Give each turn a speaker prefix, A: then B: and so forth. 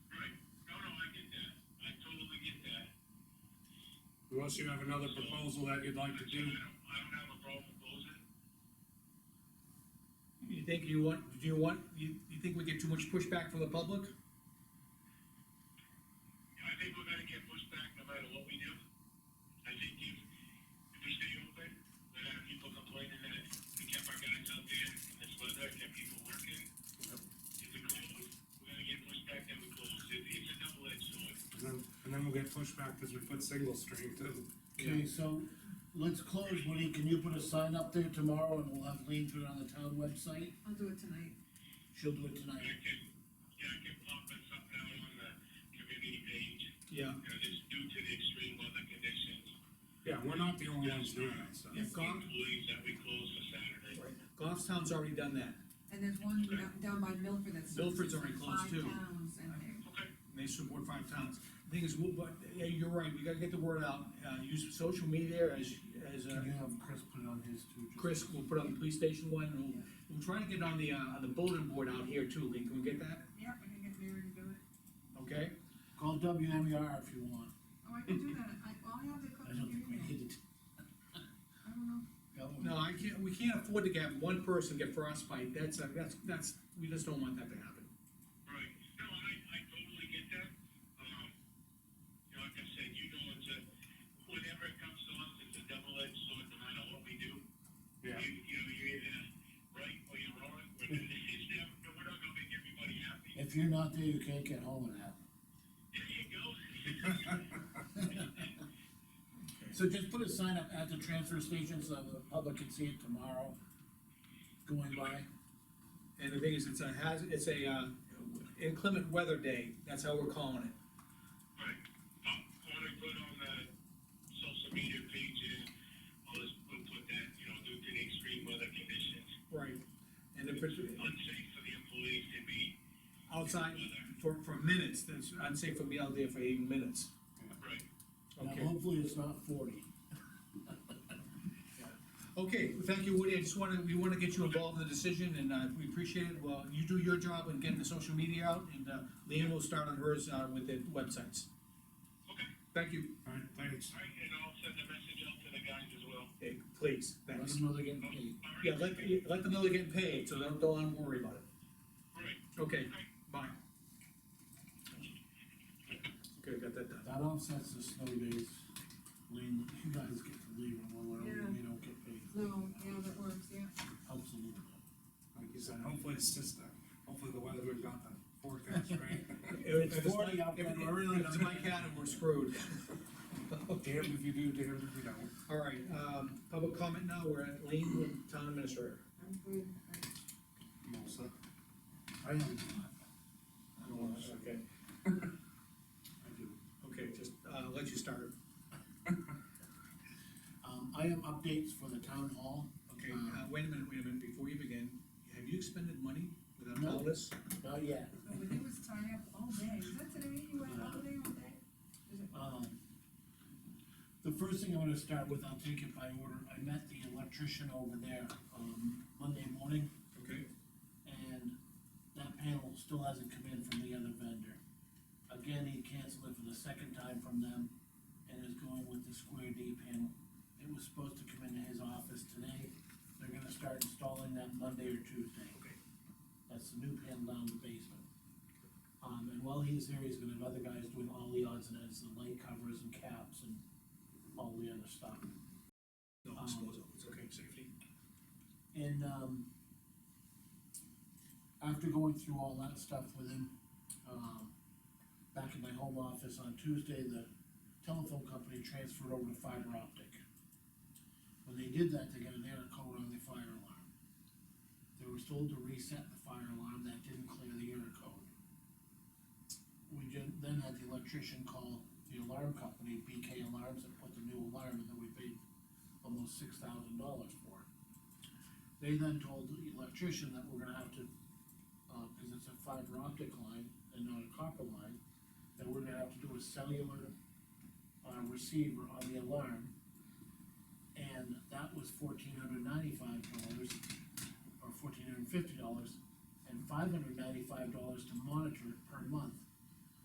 A: unless you have another proposal that you'd like to do.
B: I don't have a problem closing.
C: You think you want, do you want, you, you think we get too much pushback from the public?
B: I think we're gonna get pushed back no matter what we do. I think if, if we stay open, we're gonna have people complaining that we kept our guys out there in this weather, kept people working. If we close, we're gonna get pushed back that we close. It, it's a double edged sword.
A: And then, and then we'll get pushback because we put single string too.
D: Okay, so let's close, Woody, can you put a sign up there tomorrow and we'll have Lean put it on the town website?
E: I'll do it tonight.
D: She'll do it tonight.
B: And I can, yeah, I can pop this up now on the community page,
C: Yeah.
B: you know, just due to the extreme weather conditions.
A: Yeah, we're not the only ones doing it, so.
C: Yeah, Goff,
B: Employees that we close for Saturday.
C: Goffstown's already done that,
E: And there's one down- down by Milford that's.
C: Milford's already closed, too.
E: Five towns in there.
B: Okay.
C: and they support five towns. The Thing is, we'll, but, yeah, you're right, we gotta get the word out, uh, use social media as, as, uh,
D: Can you have Chris put it on his too? just-
C: Chris will put on the police station one, and we'll, we'll try to get on the, uh, on the bulletin board out here too, Lee, can we get that?
E: Yeah, I can get Mary to do it.
C: Okay?
D: Call WMER if you want,
E: Oh, I can do that, I, I'll have the cook
D: I don't
E: give
D: think we
E: me.
D: need it.
E: I don't know,
D: That would-
C: No, I can't, we can't afford to have one person get frostbite, that's, uh, that's, that's, we just don't want that to happen.
B: Right, no, I, I totally get that, um, you know, like I said, you know, it's a, whenever it comes to us, it's a double-edged sword, no matter what we do.
A: Yeah.
B: You, you know, you're either right or you're wrong, we're, not- it's never, no, we're not gonna make everybody happy.
D: If you're not there, you can't get home and have.
B: There you go.
D: So just put a sign up at the transfer station so the public can see it tomorrow, going by.
C: And the thing is, it's a hazard, it's a, uh, inclement weather day, that's how we're calling it.
B: Right, I'm gonna Um, put on the social media page and I'll just, we'll put that, you know, due to the extreme weather conditions,
C: Right. And if it's
B: unsafe for the employees to be
C: outside for, for minutes, that's, I'd say for me out there for eight minutes.
B: Right.
D: Now,
C: Okay,
D: hopefully it's not forty.
C: okay, well, thank you, Woody, I just wanna, we wanna get you involved in the decision, and, uh, we appreciate it, well, you do your job in getting the social media out, and, uh, Lean will start on hers, uh, with the websites.
B: Okay.
C: Thank you,
A: All right, thanks.
B: All right, and I'll send a message out to the guys as well.
C: Hey, please,
D: Let
C: thanks.
D: them know they're getting paid.
B: All right.
C: Yeah, let, let them know they're getting paid, so don't, don't worry about it.
B: All right.
C: Okay, bye. Okay, got that done.
D: That offsets the snow days. Lean, you guys get to leave them or
E: Yeah.
D: whatever, we don't get paid.
E: no, yeah, that works, yeah.
D: Helps a little bit.
A: Like you said, hopefully it's just, uh, hopefully the weatherman got the forecast right.
C: If
D: It's 40 out
C: if
D: there.
C: we're really, if it's my cat and we're screwed.
A: Damned if you do, damned if you don't.
C: All right, um, public comment now, we're at Lean with Town Administrator.
E: I'm good, I-
A: Melissa.
D: I have one.
A: I don't wanna say.
C: Okay,
D: I do.
C: okay, just, uh, let you start.
D: Um, I am updates for the town hall.
C: Okay, uh, wait a minute, wait a minute, before you begin, have you expended money without
D: No.
C: notice?
D: Not yet.
E: No, but it was tied up all day, is that today, you went all day all day? Is it-
D: Um, the first thing I'm gonna start with, I'll take it by order. I met the electrician over there, um, Monday morning.
C: Okay.
D: and that panel still hasn't come in from the other vendor. Again, he canceled it for the second time from them, and is going with the square D panel. It was supposed to come into his office today, they're gonna start installing that Monday or Tuesday.
C: Okay.
D: That's the new panel down in the basement. Um, and while he's there, he's gonna have other guys doing all the odds and ends, the light covers and caps and all the other stuff.
C: No, it's closed, it's okay, safety.
D: And, um, after going through all that stuff with him, um, back in my home office on Tuesday, the telephone company transferred over to fiber optic. When they did that, they got an error code on the fire alarm. They were told to reset the fire alarm, that didn't clear the error code. We ju- then had the electrician call the alarm company, BK Alarms, and put the new alarm, in that we paid almost six thousand dollars for it. They then told the electrician that we're gonna have to, uh, cause it's a fiber optic line and not a copper line, that we're gonna have to do a cellular, uh, receiver on the alarm. And that was fourteen hundred ninety-five dollars, or fourteen hundred fifty dollars, and five hundred ninety-five dollars to monitor it per month.